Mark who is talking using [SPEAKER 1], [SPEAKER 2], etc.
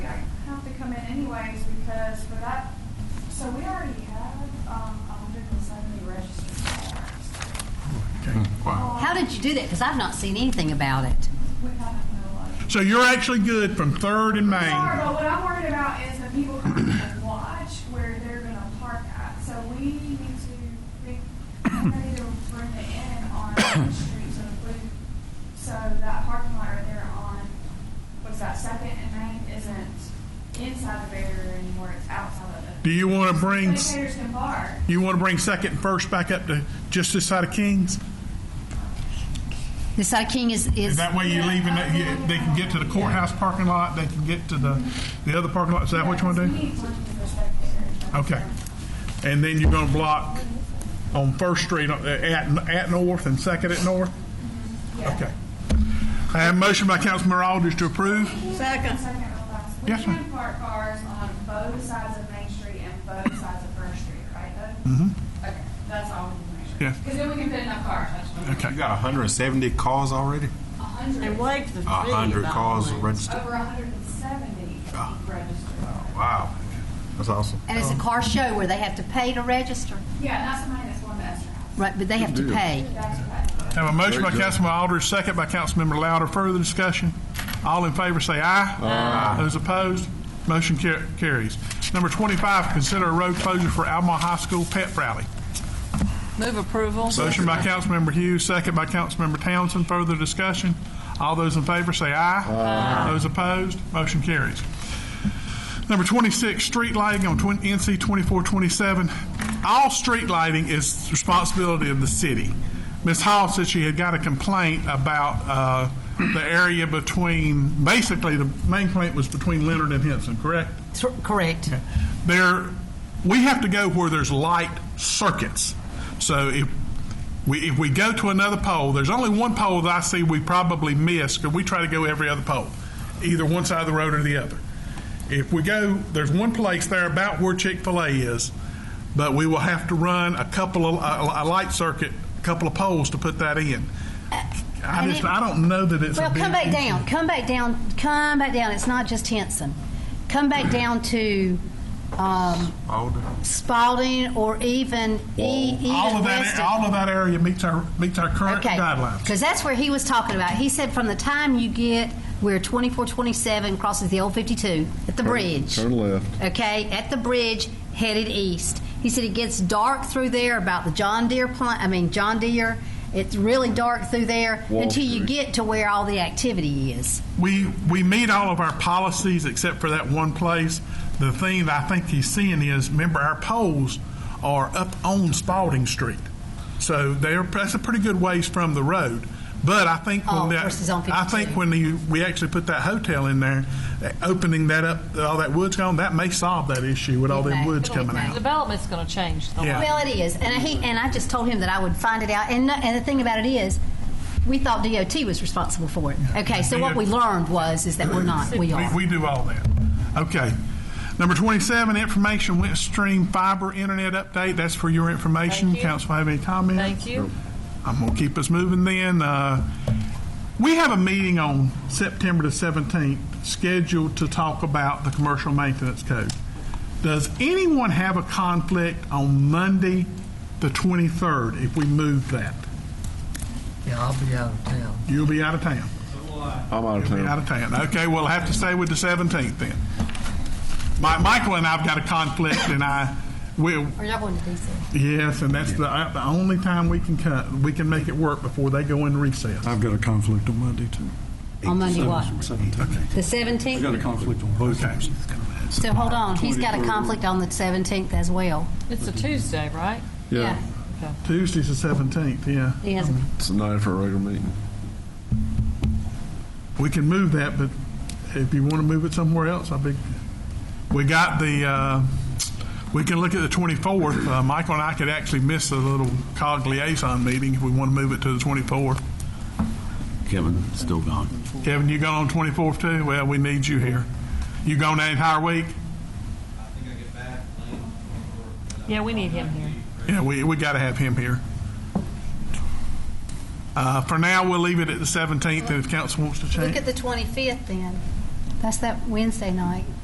[SPEAKER 1] um,
[SPEAKER 2] Hmm,
[SPEAKER 3] did you do that? Because I've not seen anything about it.
[SPEAKER 2] So you're actually good from Third and
[SPEAKER 1] Sorry,
[SPEAKER 2] Main.
[SPEAKER 1] but what I'm worried about is the people coming to watch where they're gonna park at. So we need to, re- I'm ready to bring the in on Main Street, so the blue, so that parking lot right there on, what's that, Second and Main isn't inside the barrier anymore, it's outside of it.
[SPEAKER 2] Do you want to bring
[SPEAKER 1] Spectators can park.
[SPEAKER 2] you want to bring Second and First back up to just this side of Kings?
[SPEAKER 3] This side of King is,
[SPEAKER 2] Is
[SPEAKER 3] is,
[SPEAKER 2] that way you leave and they, you, they can get to the courthouse parking lot? They can get to the the other parking lot. Is that what you want to
[SPEAKER 1] We
[SPEAKER 2] do?
[SPEAKER 1] need parking for spectators.
[SPEAKER 2] Okay. And then you're going to block on First Street uh, at, at North and Second at North? Okay. I have a motion by Councilmember Aldridge to approve.
[SPEAKER 1] Second. We
[SPEAKER 2] Yes, ma'am.
[SPEAKER 1] can park cars on both sides of Main Street and both sides of First Street, right, Doug? Mm-hmm. Okay, that's all we need to make sure.
[SPEAKER 2] Yes.
[SPEAKER 1] Because then we can fit enough cars, that's what I'm-
[SPEAKER 2] Okay.
[SPEAKER 4] You got 170 calls already?
[SPEAKER 1] a hundred,
[SPEAKER 5] And waived the fee.
[SPEAKER 4] A 100
[SPEAKER 5] by
[SPEAKER 4] calls
[SPEAKER 5] all means.
[SPEAKER 4] registered?
[SPEAKER 1] over a hundred and seventy
[SPEAKER 2] Ah.
[SPEAKER 1] registered.
[SPEAKER 2] Oh,
[SPEAKER 4] Wow. That's awesome.
[SPEAKER 3] and it's a car show where they have to pay to register.
[SPEAKER 1] Yeah, not somebody that's going to Esther House,
[SPEAKER 3] Right, but they have to pay.
[SPEAKER 1] that's what.
[SPEAKER 2] Have a motion by Councilmember Aldridge, second by Councilmember Louder. Further discussion? All in favor say aye. Aye. Those opposed? Motion car- carries. Number 25, consider a road closure for Alma High School pep rally.
[SPEAKER 5] Move approval.
[SPEAKER 2] Motion by Councilmember Hughes, second by Councilmember Townsend. Further discussion? All those in favor say aye. Aye. Those opposed? Motion carries. Number 26, street lighting on 20 NC 2427. All street lighting is responsibility of the city. Ms. Hall said she had got a complaint about uh, the area between, basically, the main complaint was between Leonard and Henson, correct?
[SPEAKER 3] Tr- Correct.
[SPEAKER 2] there we have to go where there's light circuits. So if we if we go to another pole, there's only one pole that I see we probably miss because we try to go every other pole, either one side of the road or the other. If we go, there's one place there about where Chick Fil A is, but we will have to run a couple of a, a light circuit, a couple of poles to put that in. I
[SPEAKER 3] And
[SPEAKER 2] just
[SPEAKER 3] it-
[SPEAKER 2] I don't know that it's a
[SPEAKER 3] Well,
[SPEAKER 2] big
[SPEAKER 3] come back
[SPEAKER 2] issue.
[SPEAKER 3] down, come back down, come back down. It's not just Henson. Come back down to um,
[SPEAKER 4] Alder.
[SPEAKER 3] Spalding or even E- even
[SPEAKER 2] All of that
[SPEAKER 3] Weston.
[SPEAKER 2] all of that area meets our meets our current
[SPEAKER 3] Okay.
[SPEAKER 2] guidelines.
[SPEAKER 3] Because that's where he was talking about. He said from the time you get where 2427 crosses the old 52 at the bridge.
[SPEAKER 6] Turn left.
[SPEAKER 3] Okay, at the bridge headed east. He said it gets dark through there about the John Deere plant. I mean John Deere. It's really dark through there
[SPEAKER 6] Wall
[SPEAKER 3] until you
[SPEAKER 6] Street.
[SPEAKER 3] get to where all the activity is.
[SPEAKER 2] we we meet all of our policies except for that one place. The thing that I think he's seeing is, remember, our poles are up on Spalding Street, so they're that's a pretty good ways from the road. But I think when
[SPEAKER 3] Oh,
[SPEAKER 2] that,
[SPEAKER 3] versus on
[SPEAKER 2] I think
[SPEAKER 3] 52.
[SPEAKER 2] when you, we actually put that hotel in there, uh, opening that up, all that wood's gone, that may solve that issue with all
[SPEAKER 3] It
[SPEAKER 2] them
[SPEAKER 3] may.
[SPEAKER 2] woods
[SPEAKER 3] It'll be
[SPEAKER 2] coming
[SPEAKER 3] nice.
[SPEAKER 2] out.
[SPEAKER 5] Development's going to change the
[SPEAKER 2] Yeah.
[SPEAKER 5] lot.
[SPEAKER 3] Well, it is, and he and I just told him that I would find it out. And, no- and the thing about it is, we thought DOT was responsible for it. Okay, so what we learned was is that we're not. We
[SPEAKER 2] We,
[SPEAKER 3] are.
[SPEAKER 2] we do all that. Okay. Number 27, information went stream fiber internet update. That's for your information.
[SPEAKER 5] Thank you.
[SPEAKER 2] Council have any comments?
[SPEAKER 5] Thank you.
[SPEAKER 2] I'm going to keep us moving then. Uh, we have a meeting on September the 17th scheduled to talk about the commercial maintenance code. Does anyone have a conflict on Monday, the 23rd, if we move that?
[SPEAKER 7] Yeah, I'll be out of town.
[SPEAKER 2] You'll be out of town.
[SPEAKER 6] I'm out of town.
[SPEAKER 2] Out of town. Okay, we'll have to stay with the 17th then. My, Michael and I've got a conflict, and I will.
[SPEAKER 3] Are y'all going to DC?
[SPEAKER 2] Yes, and that's the, the only time we can cut, we can make it work before they go in recess.
[SPEAKER 8] I've got a conflict on Monday, too.
[SPEAKER 3] On Monday what?
[SPEAKER 8] Seventeenth.
[SPEAKER 3] The
[SPEAKER 8] I've got a
[SPEAKER 3] seventeenth.
[SPEAKER 8] conflict on both
[SPEAKER 2] Okay.
[SPEAKER 8] times.
[SPEAKER 3] So hold on, he's got a conflict on the seventeenth as well.
[SPEAKER 5] It's a Tuesday, right?
[SPEAKER 6] Yeah.
[SPEAKER 2] Tuesday's the 17th, yeah.
[SPEAKER 3] He has. a-
[SPEAKER 6] It's the night for a regular meeting.
[SPEAKER 2] We can move that, but if you want to move it somewhere else, I'd be, we got the, uh, we can look at the 24th. Uh, Michael and I could actually miss a little COG liaison meeting if we want to move it to the 24th.
[SPEAKER 9] Kevin, still gone.
[SPEAKER 2] Kevin, you gone on 24th too? Well, we need you here. You gone that entire week?
[SPEAKER 5] Yeah, we need him here.
[SPEAKER 2] Yeah, we, we got to have him here. Uh, For now, we'll leave it at the 17th, and if council wants to change.
[SPEAKER 3] Look at the twenty-fifth then. That's that Wednesday night.